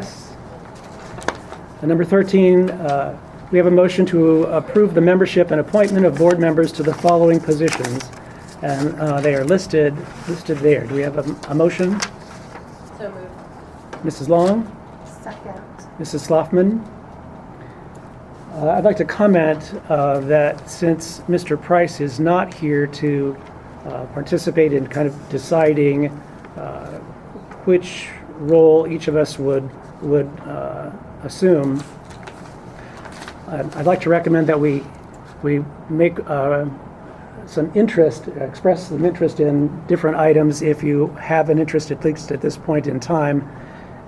Yes. And number 13, uh, we have a motion to approve the membership and appointment of board members to the following positions. And uh, they are listed, listed there. Do we have a- a motion? So moved. Mrs. Long? Second. Mrs. Sloughman? Uh, I'd like to comment uh, that since Mr. Price is not here to uh, participate in kind of deciding uh, which role each of us would, would uh, assume, I'd I'd like to recommend that we, we make uh, some interest, express some interest in different items if you have an interest, at least at this point in time,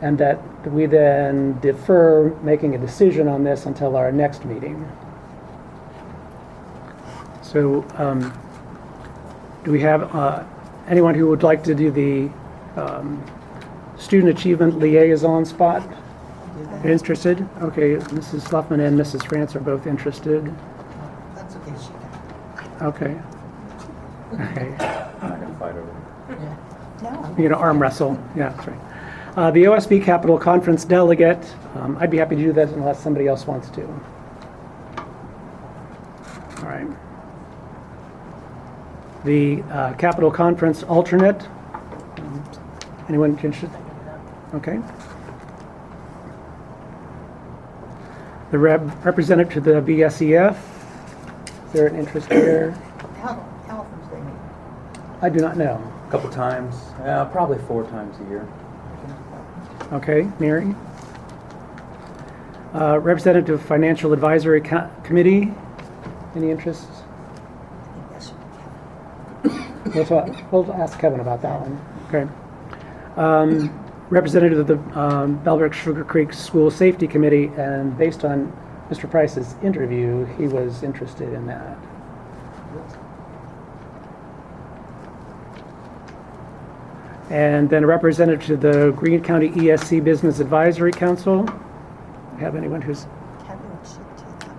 and that we then defer making a decision on this until our next meeting. So, um, do we have uh, anyone who would like to do the um, student achievement liaison spot? Interested? Okay, Mrs. Sloughman and Mrs. France are both interested. That's okay, she got Okay. Okay. I can fight over it. it. No. You're gonna arm wrestle. Yeah, that's right. Uh, the OSB Capital Conference delegate. Um, I'd be happy to do that unless somebody else wants to. All right. The uh, Capital Conference alternate. Um, Anyone interested? Okay. The rep- representative to the BSEF. Is there an interest there? Health, health is the meeting. I do not know. A couple times, uh, probably four times a year. Okay, Mary? Uh, Representative Financial Advisory Co- Committee, any interest? I think that should be Kevin. We'll talk- we'll ask Kevin about that one. Okay. Um, Representative of the um, Bellbrook Sugar Creek School Safety Committee, and based on Mr. Price's interview, he was interested in that. And then a representative to the Greene County ESC Business Advisory Council. Have anyone who's Kevin should do that, maybe.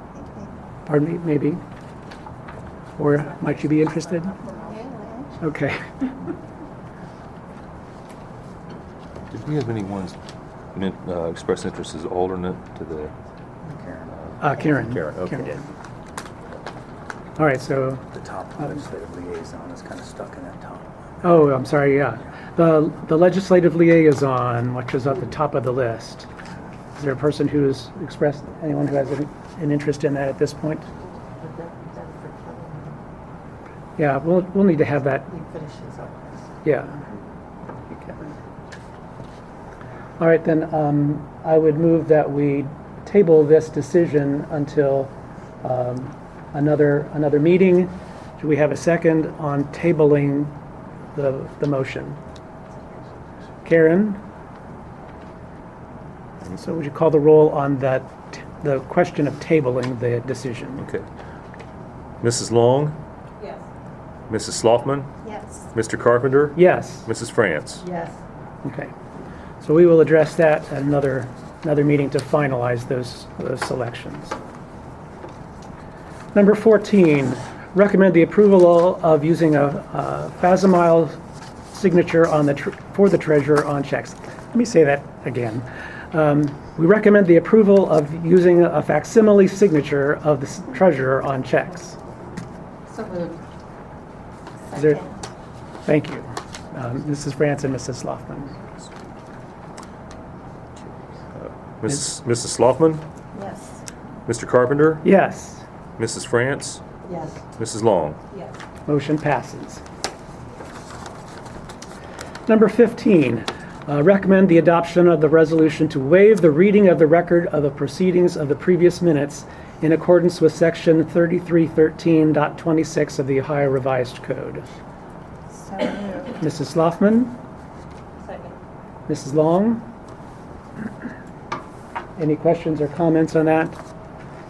Pardon me, maybe? Or might you be interested? Okay. Did we have anyone uh, express interest as alternate to the? Uh, Karen. Karen, okay. did. All right, so, The top legislative liaison is kind of stuck in that top. oh, I'm sorry, yeah. The the legislative liaison, which is at the top of the list. Is there a person who's expressed, anyone who has an an interest in that at this point? But that, that for Kevin, Yeah, we'll, we'll need to have that he finishes up. Yeah. All right, then, um, I would move that we table this decision until, um, another, another meeting. Do we have a second on tabling the, the motion? Karen? And so would you call the roll on that, t- the question of tabling the decision? Okay. Mrs. Long, Yes. Mrs. Sloughman, Yes. Mr. Carpenter, Yes? Mrs. France. Yes. Okay. So we will address that at another, another meeting to finalize those, those selections. Number 14, recommend the approval of using a uh, Fasimile signature on the, tr- for the treasurer on checks. Let me say that again. Um, We recommend the approval of using a facsimile signature of the s- treasurer on checks. So moved. Is there- Second. Thank you. Um, Mrs. France and Mrs. Sloughman. Mrs. Mrs. Sloughman, Yes. Mr. Carpenter, Yes. Mrs. France, Yes. Mrs. Long. Yes. Motion passes. Number 15, uh, recommend the adoption of the resolution to waive the reading of the record of the proceedings of the previous minutes in accordance with Section 3313.26 of the Ohio Revised Code. So moved. Mrs. Sloughman? Second. Mrs. Long? Any questions or comments on that?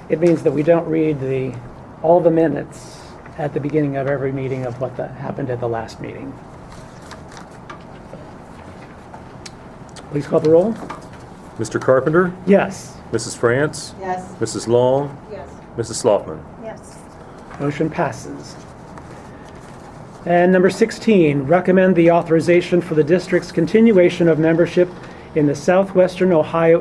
It means that we don't read the, all the minutes at the beginning of every meeting of what the- happened at the last meeting. Please call the roll. Mr. Carpenter, Yes, Mrs. France, Yes. Mrs. Long, Yes. Mrs. Sloughman. Yes. motion passes. And number 16, recommend the authorization for the district's continuation of membership in the Southwestern Ohio